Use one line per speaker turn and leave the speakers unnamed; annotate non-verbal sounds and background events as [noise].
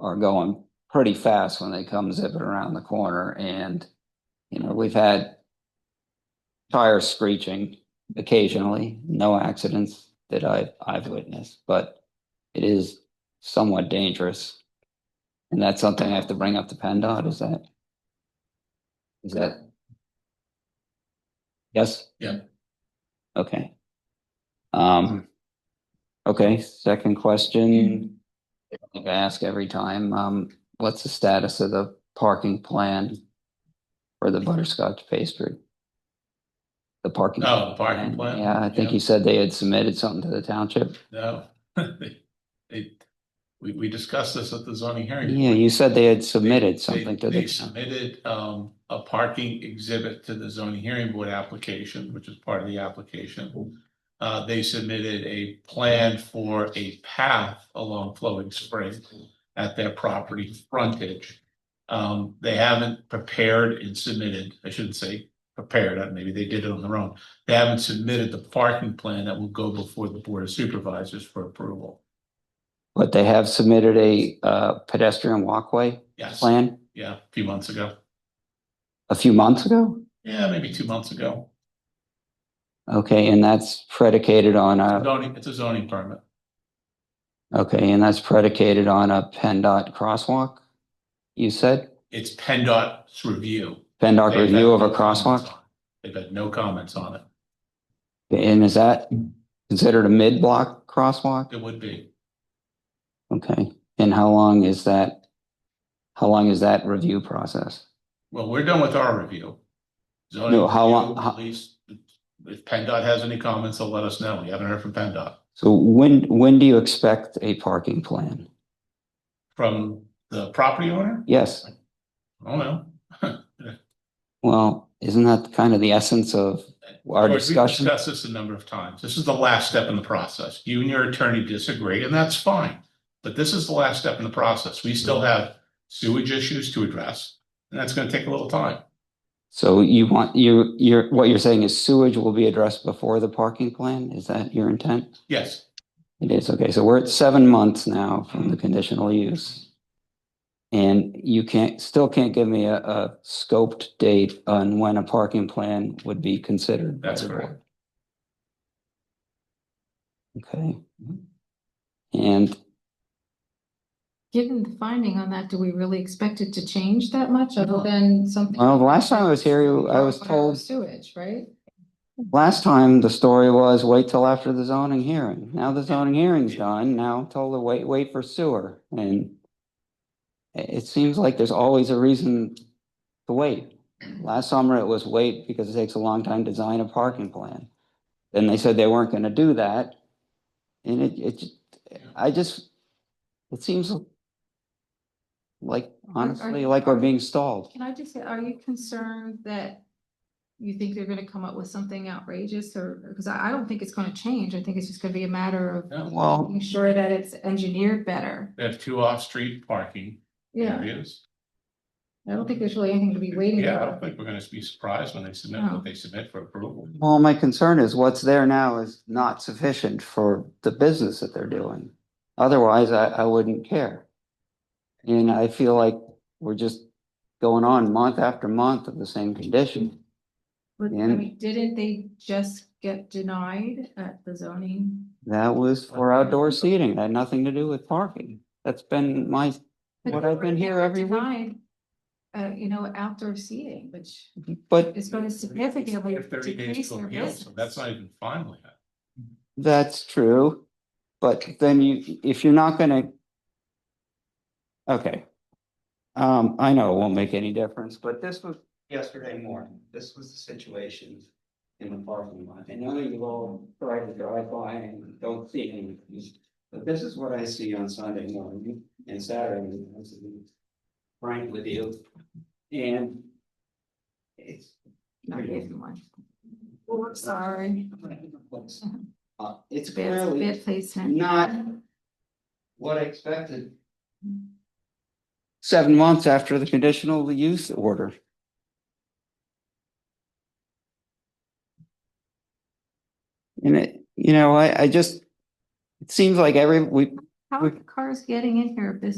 are going pretty fast when they come zipping around the corner and, you know, we've had tires screeching occasionally, no accidents that I, I've witnessed, but it is somewhat dangerous. And that's something I have to bring up to PennDOT, is that? Is that? Yes?
Yeah.
Okay. Um, okay, second question. I think I ask every time, um, what's the status of the parking plan for the butterscotch pastry? The parking.
Oh, the parking plan?
Yeah, I think you said they had submitted something to the township.
No. [laughs] They- They, we, we discussed this at the zoning hearing.
Yeah, you said they had
They-
submitted
they-
something to
They
the,
submitted, um, a parking exhibit to the zoning hearing board application, which is part of the application. Uh, they submitted a plan for a path along Flowing Spring at their property frontage. Um, they haven't prepared and submitted, I shouldn't say prepared, uh, maybe they did it on their own. They haven't submitted the parking plan that will go before the board of supervisors for approval.
but they have submitted a, uh, pedestrian walkway
Yes,
plan
yeah, a few months ago.
a few months ago?
Yeah, maybe two months ago.
Okay, and that's predicated on a,
Zoning, it's a zoning permit.
okay, and that's predicated on a PennDOT crosswalk? You said
It's PennDOT's review.
PennDOT
They've had
review of a
no comments
crosswalk?
on it. They've had no comments on it.
And is that considered a mid-block crosswalk?
It would be,
Okay, and how long is that? How long is that review process?
well, we're done with our review. Zoning
No, how long-
review,
how-
At least, if PennDOT has any comments, they'll let us know. We haven't heard from PennDOT.
So when, when do you expect a parking plan?
From the property owner?
Yes,
I don't know.
well, isn't that kind of the essence of our
George, we've
discussion?
Discussed this a number of times. This is the last step in the process. You and your attorney disagree, and that's fine. But this is the last step in the process. We still
Mm-hmm.
have sewage issues to address, and that's gonna take a little time.
So you want, you, you're, what you're saying is sewage will be addressed before the parking plan? Is that your intent?
Yes,
It is, okay, so we're at seven months now from the conditional use. And you can't, still can't give me a, a scoped date on when a parking plan would be considered. by
That's
the
correct.
board. Okay. And
Given the finding on that, do we really expect it to change that much other than something?
Well, the last time I was here, you- I was
Water or
told-
Sewage, right?
Last time, the story was wait till after the zoning hearing. Now the zoning hearing's done. Now I'm told to wait, wait for sewer and it, it seems like there's always a reason to wait. Last summer it was wait because it takes a long time to design a parking plan. Then they said they weren't gonna do that. And it, it, ju- I just, it seems like honestly, like we're being stalled.
Can I just say, are you concerned that you think they're gonna come up with something outrageous or, because I, I don't think it's gonna change. I think it's just gonna be a matter of
No.
Well,
making sure that it's engineered better.
They have two off-street parking
Yeah,
areas.
I don't think there's really anything to be waiting
Yeah, I don't
for.
think we're gonna be surprised when they submit
No.
what they submit for approval.
Well, my concern is what's there now is not sufficient for the business that they're doing. Otherwise, I, I wouldn't care. And I feel like we're just going on month after month of the same condition.
But, I
And-
mean, didn't they just get denied at the zoning?
That was for outdoor seating, It had nothing to do with parking. That's been my,
But
What
they
I've
were-
been
they
here
were
every week.
denied, Uh, you know, outdoor seating, which
but
is going to significantly
They have 30 days to
decrease their
appeal, so
business.
That's not even final yet.
That's true, but then you, if you're not gonna. Okay. Um, I know it won't make any difference, but this was yesterday morning. This was the situation in the parking lot. I know you all try to drive by and don't see anything. But this is what I see on Sunday morning and Saturday. morning, to be Frank with you. And. It's.
Not even one. Oh, I'm sorry.
[laughs] Uh, it's
Bad,
clearly.
bad placement.
Not- what I expected. Seven months after the conditional use order. And it, you know, I, I just, it seems like every, we,
How are the cars getting in here if there's